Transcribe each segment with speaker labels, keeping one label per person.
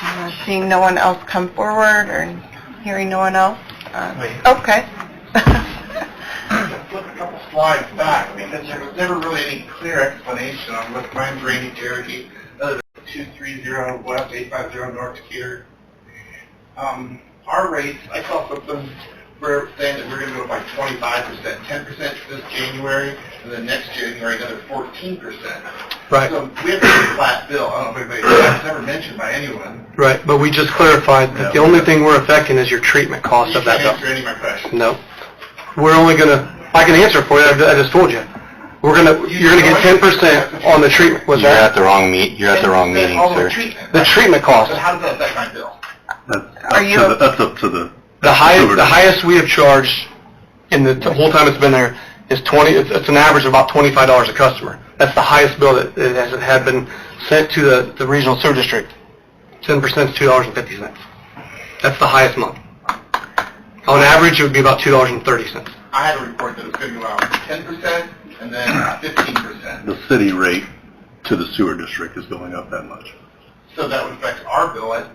Speaker 1: Uh, Seeing no one else come forward or hearing no one else? uh,
Speaker 2: Wait.
Speaker 1: Okay.
Speaker 2: Flip a couple slides back, I mean, there was never really any clear explanation on what mine's rainy Cherokee, other than 230 West, 850 North Decatur. Um, our rates, I saw something, we're saying that we're gonna go by 25%, 10% this January, and then next January, another 14%.
Speaker 3: Right.
Speaker 2: So we have a pretty flat bill, I don't know if anybody, that's never mentioned by anyone.
Speaker 3: Right, but we just clarified that the
Speaker 2: Yeah.
Speaker 3: only thing we're affecting is your treatment cost
Speaker 2: You
Speaker 3: of
Speaker 2: can't
Speaker 3: that bill.
Speaker 2: answer any of my questions.
Speaker 3: No. We're only gonna, I can answer for you, I I just told you. We're gonna, you're gonna get ten percent on the treatment, was
Speaker 4: You're at
Speaker 3: that?
Speaker 4: the wrong meet, you're at the wrong meeting,
Speaker 2: All the
Speaker 4: sir.
Speaker 2: treatment.
Speaker 3: The treatment
Speaker 2: So
Speaker 3: cost,
Speaker 2: how does that affect my bill?
Speaker 1: Are you-
Speaker 5: That's up to the- that's up to the...
Speaker 3: the highest, the
Speaker 5: Over.
Speaker 3: highest we have charged in the the whole time it's been there is twenty, it's, it's an average of about twenty-five dollars a customer. That's the highest bill that, that has, had been sent to the, the regional sewer district. Ten percent is two dollars and fifty cents. That's the highest month. On average, it would be about two dollars and thirty cents.
Speaker 2: I had a report that it was going to go out ten percent and then fifteen percent.
Speaker 5: The city rate to the sewer district is going up that much.
Speaker 2: So that would affect our bill at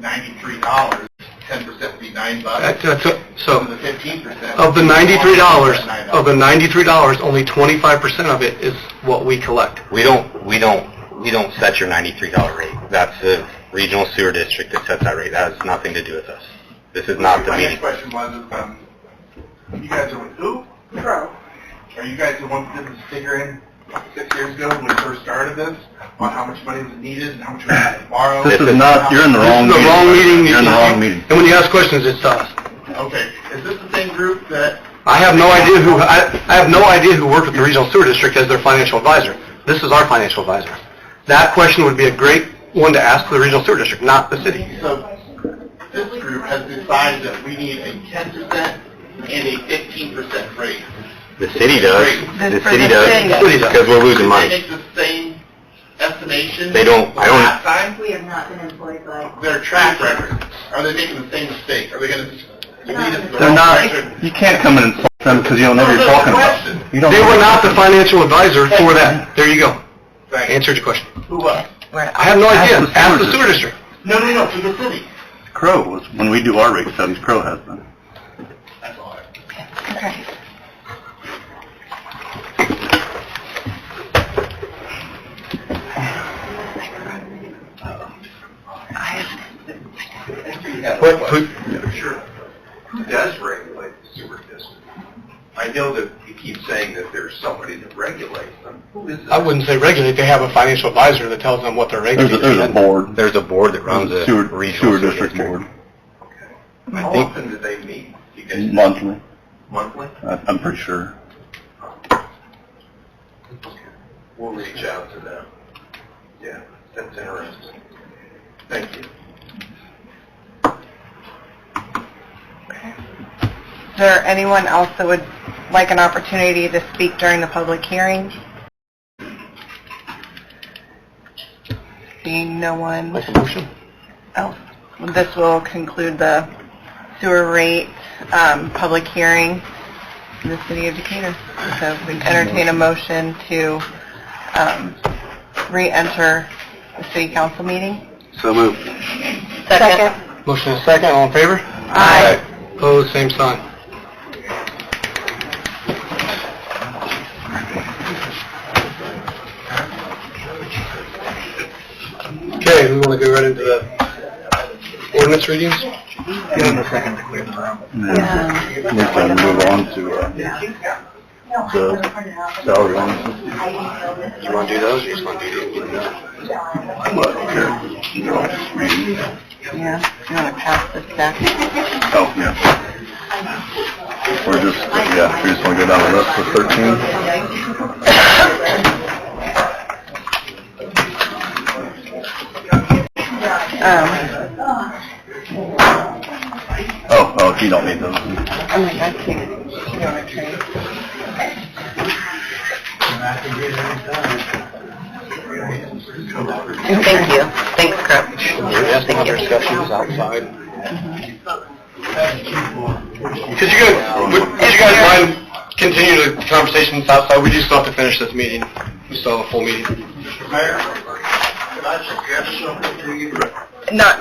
Speaker 2: ninety-three dollars. Ten percent would be nine
Speaker 3: That-
Speaker 2: bucks.
Speaker 3: that's it.
Speaker 2: So the
Speaker 3: So,
Speaker 2: fifteen percent.
Speaker 3: of the ninety-three dollars, of the ninety-three dollars, only twenty-five percent of it is what we collect.
Speaker 4: We don't, we don't, we don't set your ninety-three dollar rate. That's the regional sewer district that sets that rate. That has nothing to do with us. This is not the
Speaker 2: My next
Speaker 4: meeting.
Speaker 2: question was, um, you guys are with who?
Speaker 1: Pro.
Speaker 2: Are you guys the ones that did the figure in six years ago when we first started this? On how much money was needed and how much we had to borrow?
Speaker 5: This
Speaker 4: is
Speaker 5: is not, you're in the
Speaker 3: This is
Speaker 5: wrong meeting.
Speaker 3: the wrong meeting.
Speaker 5: You're in the wrong meeting.
Speaker 3: And when you ask questions, it's us.
Speaker 2: Okay, is this the same group that,
Speaker 3: I have no idea who, I, I have no idea who worked with the regional sewer district as their financial advisor. This is our financial advisor. That question would be a great one to ask the regional sewer district, not the city.
Speaker 2: so this group has decided that we need a ten percent and a fifteen percent raise?
Speaker 4: The city does.
Speaker 1: This
Speaker 4: The
Speaker 1: for
Speaker 4: city
Speaker 1: the city.
Speaker 4: does.
Speaker 3: City does.
Speaker 4: Because we're losing
Speaker 2: They
Speaker 4: money.
Speaker 2: make the same estimation?
Speaker 4: They don't- I don't-
Speaker 2: Last time,
Speaker 6: We have not been employed by.
Speaker 2: their track record, are they making the same mistake? Are they gonna lead us to the
Speaker 5: They're
Speaker 2: wrong
Speaker 5: not,
Speaker 2: direction?
Speaker 5: you can't come in and insult them because you don't know what you're talking about. You don't
Speaker 3: They
Speaker 5: know
Speaker 3: were
Speaker 5: what-
Speaker 3: not the financial advisor for that. There you go.
Speaker 2: Right,
Speaker 3: Answered your question.
Speaker 2: who was?
Speaker 3: I have no
Speaker 5: Ask
Speaker 3: idea.
Speaker 5: the sewer
Speaker 3: Ask the
Speaker 5: district.
Speaker 3: sewer district.
Speaker 2: No, no, no, to the city.
Speaker 5: Crow was, when we do our rate studies, Crow has them.
Speaker 2: That's all. I-
Speaker 1: Okay.
Speaker 3: What- who-
Speaker 2: Sure. Who does regulate the sewer district? I know that you keep saying that there's somebody that regulates them. Who is
Speaker 3: I wouldn't say regulate, they have a financial advisor that tells them what their rate
Speaker 5: There's a, there's a
Speaker 3: is.
Speaker 5: board,
Speaker 4: There's a board that runs
Speaker 5: there's a
Speaker 4: the
Speaker 5: sewer,
Speaker 4: regional
Speaker 5: sewer district board,
Speaker 2: How often do they meet? You guys
Speaker 5: monthly,
Speaker 2: monthly?
Speaker 5: I- I'm pretty sure.
Speaker 2: We'll reach out to them. Yeah, that's interesting. Thank you.
Speaker 1: Is there anyone else that would like an opportunity to speak during the public hearing? Seeing no one
Speaker 3: Make a motion.
Speaker 1: else, this will conclude the sewer rate um, public hearing in the city of Decatur. So we entertain a motion to um, re-enter the city council meeting.
Speaker 3: So moved.
Speaker 1: Second.
Speaker 3: Motion is second, all in favor?
Speaker 1: Aye.
Speaker 3: Opposed, same sign. Okay, we want to go right into the ordinance readings?
Speaker 5: And
Speaker 1: Um,
Speaker 5: then We can move on to, uh, the salary ordinance.
Speaker 3: You want to do those, or you just want to do these?
Speaker 5: I'm not here. You know, just reading.
Speaker 1: Yeah, you want to pass this back?
Speaker 5: Oh, yeah. We're just, yeah, we just want to go down the list for 13.
Speaker 1: Um,
Speaker 5: Oh, oh, you don't need those.
Speaker 1: I'm like, I can't, you know, I can't. Thank you. Thanks, Chris.
Speaker 3: Yes, have other discussions outside. Could you guys, would- could you guys mind continuing the conversations outside? We do still have to finish this meeting. We still have a full meeting.
Speaker 2: Mr. Mayor, can I suggest something to you?
Speaker 1: Not,